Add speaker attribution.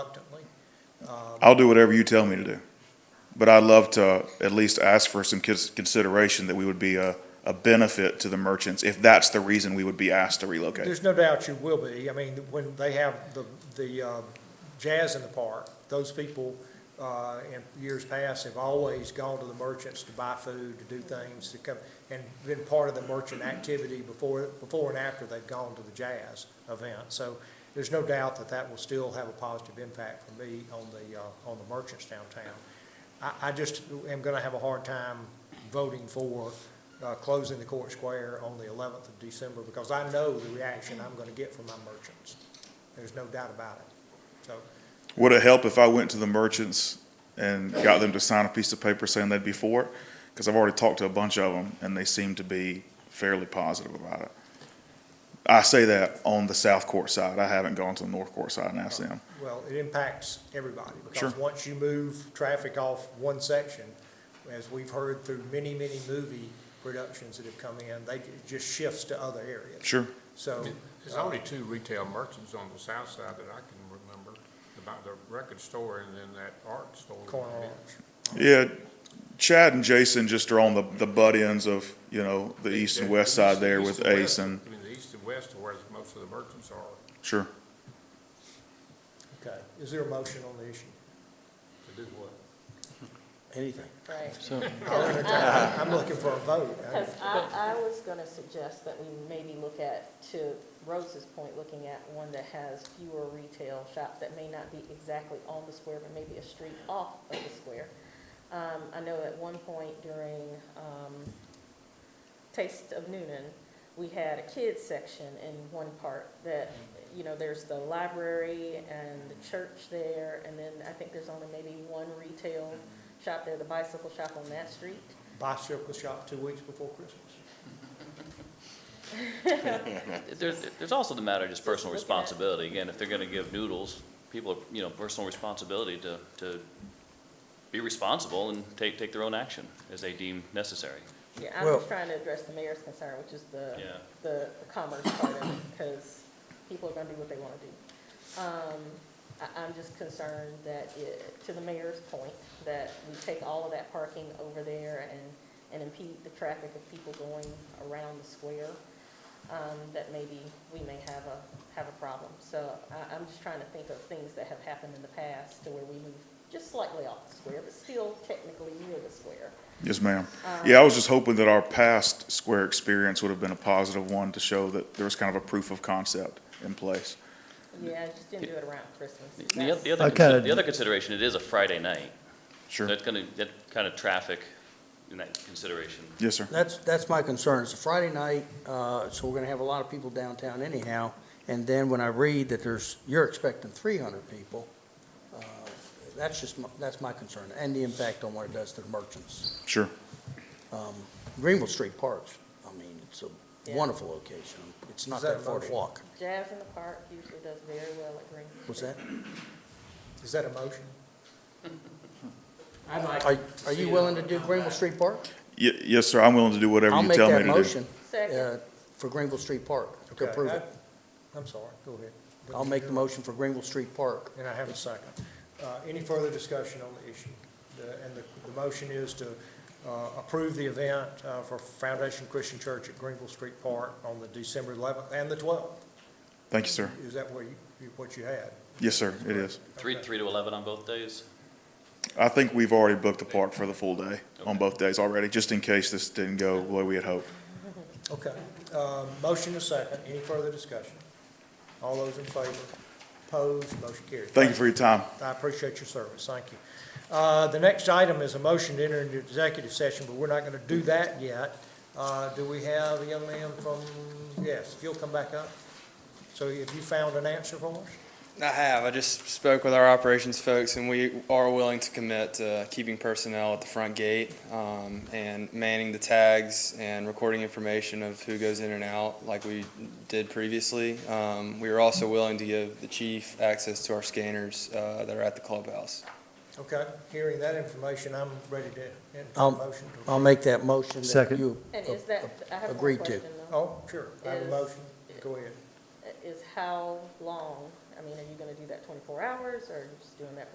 Speaker 1: I'll do whatever you tell me to do. But I'd love to at least ask for some cons- consideration that we would be a, a benefit to the merchants if that's the reason we would be asked to relocate.
Speaker 2: There's no doubt you will be. I mean, when they have the, the um, jazz in the park, those people uh, in years past have always gone to the merchants to buy food, to do things, to come, and been part of the merchant activity before, before and after they've gone to the jazz event. So there's no doubt that that will still have a positive impact for me on the, uh, on the merchants downtown. I, I just am gonna have a hard time voting for, uh, closing the court square on the eleventh of December, because I know the reaction I'm gonna get from my merchants. There's no doubt about it. So,
Speaker 1: Would it help if I went to the merchants and got them to sign a piece of paper saying they'd be for it? Because I've already talked to a bunch of them and they seem to be fairly positive about it. I say that on the south court side. I haven't gone to the north court side and asked them.
Speaker 2: well, it impacts everybody, because
Speaker 1: Sure.
Speaker 2: once you move traffic off one section, as we've heard through many, many movie productions that have come in, they, it just shifts to other areas.
Speaker 1: Sure.
Speaker 2: So, uh,
Speaker 3: There's only two retail merchants on the south side that I can remember, about the record store and then that art store.
Speaker 2: corner orange.
Speaker 1: Yeah, Chad and Jason just are on the, the butt ends of, you know, the east and west side there
Speaker 3: East
Speaker 1: with
Speaker 3: and
Speaker 1: Ace
Speaker 3: west-
Speaker 1: and,
Speaker 3: I mean, the east and west are where most of the merchants are
Speaker 1: sure.
Speaker 2: Okay, is there a motion on the issue?
Speaker 3: to do what?
Speaker 2: Anything.
Speaker 4: Right,
Speaker 2: I'll entertain, I'm looking for a vote.
Speaker 4: because I, I was gonna suggest that we maybe look at, to Rose's point, looking at one that has fewer retail shops that may not be exactly on the square, but maybe a street off of the square. Um, I know at one point during, um, Taste of Noonan, we had a kids section in one part that, you know, there's the library and the church there, and then I think there's only maybe one retail shop there, the bicycle shop on that street.
Speaker 2: Bicycle shop two weeks before Christmas.
Speaker 5: There's, there's also the matter of just personal
Speaker 4: Just looking at-
Speaker 5: responsibility. Again, if they're gonna give noodles, people, are you know, personal responsibility to, to be responsible and take, take their own action as they deem necessary.
Speaker 4: Yeah, I'm
Speaker 6: Well-
Speaker 4: just trying to address the mayor's concern, which is the,
Speaker 5: Yeah.
Speaker 4: the commerce part of it, because people are gonna do what they wanna do. Um, I, I'm just concerned that it, to the mayor's point, that we take all of that parking over there and, and impede the traffic of people going around the square, um, that maybe we may have a, have a problem. So I, I'm just trying to think of things that have happened in the past to where we move just slightly off the square, but still technically near the square.
Speaker 1: Yes, ma'am. Yeah, I was just hoping that our past square experience would have been a positive one to show that there was kind of a proof of concept in place.
Speaker 4: Yeah, I just didn't do it around Christmas.
Speaker 5: The- The oth- the
Speaker 6: I
Speaker 5: other,
Speaker 6: kinda-
Speaker 5: consi- the other consideration, it is a Friday night. So
Speaker 1: Sure.
Speaker 5: it's gonna, that kind of traffic in that consideration.
Speaker 1: Yes, sir.
Speaker 6: That's, that's my concern. It's a Friday night, uh, so we're gonna have a lot of people downtown anyhow. And then when I read that there's, you're expecting three hundred people, uh, that's just, my- that's my concern, and the impact on what it does to the merchants.
Speaker 1: Sure.
Speaker 6: Greenville Street Parks, I mean, it's a
Speaker 4: Yeah.
Speaker 6: wonderful location. It's not
Speaker 2: Is that
Speaker 6: that
Speaker 2: a
Speaker 6: far to
Speaker 2: motion?
Speaker 6: walk.
Speaker 4: Jazz in the Park usually does very well at Green.
Speaker 6: Was that?
Speaker 2: Is that a motion?
Speaker 7: I'd like to
Speaker 6: Are, are
Speaker 7: see
Speaker 6: you
Speaker 7: it
Speaker 6: willing to do
Speaker 7: come
Speaker 6: Greenville
Speaker 7: back.
Speaker 6: Street Park?
Speaker 1: Y- yes, sir. I'm willing to do whatever
Speaker 6: I'll
Speaker 1: you
Speaker 6: make
Speaker 1: tell me to
Speaker 6: that
Speaker 1: do.
Speaker 6: motion,
Speaker 4: Second,
Speaker 6: uh, for Greenville Street Park, to
Speaker 2: Okay,
Speaker 6: approve
Speaker 2: I-
Speaker 6: it.
Speaker 2: I'm sorry, go ahead.
Speaker 6: I'll make the motion for Greenville Street Park.
Speaker 2: And I have a second. Uh, Any further discussion on the issue? The- And the, the motion is to uh, approve the event uh, for Foundation Christian Church at Greenville Street Park on the December 11th and the 12th.
Speaker 1: Thank you, sir.
Speaker 2: Is that what you, you- what you had?
Speaker 1: Yes, sir. It is.
Speaker 5: Three, three to 11 on both days?
Speaker 1: I think we've already booked the park for the full day on both days already, just in case this didn't go the way we had hoped.
Speaker 2: Okay. Uh, Motion is second. Any further discussion? All those in favor? Opposed? Motion carried.
Speaker 1: Thank you for your time.
Speaker 2: I appreciate your service, thank you. Uh, The next item is a motion to enter into executive session, but we're not going to do that yet. Uh, Do we have a young man from, yes, if you'll come back up? So have you found an answer for us?
Speaker 8: I have. I just spoke with our operations folks, and we are willing to commit to keeping personnel at the front gate um, and manning the tags and recording information of who goes in and out, like we did previously. Um, we are also willing to give the chief access to our scanners uh, that are at the clubhouse.
Speaker 2: Okay, hearing that information, I'm ready to enter a
Speaker 6: I'll-
Speaker 2: motion. to-
Speaker 6: I'll make that motion that
Speaker 7: Second.
Speaker 6: you
Speaker 4: and is that, I have one
Speaker 6: Agreed to.
Speaker 4: question though.
Speaker 2: Oh, sure, I have a
Speaker 4: Is-
Speaker 2: motion, go ahead.
Speaker 4: Is how long, I mean, are you gonna do that twenty-four hours, or are you just doing that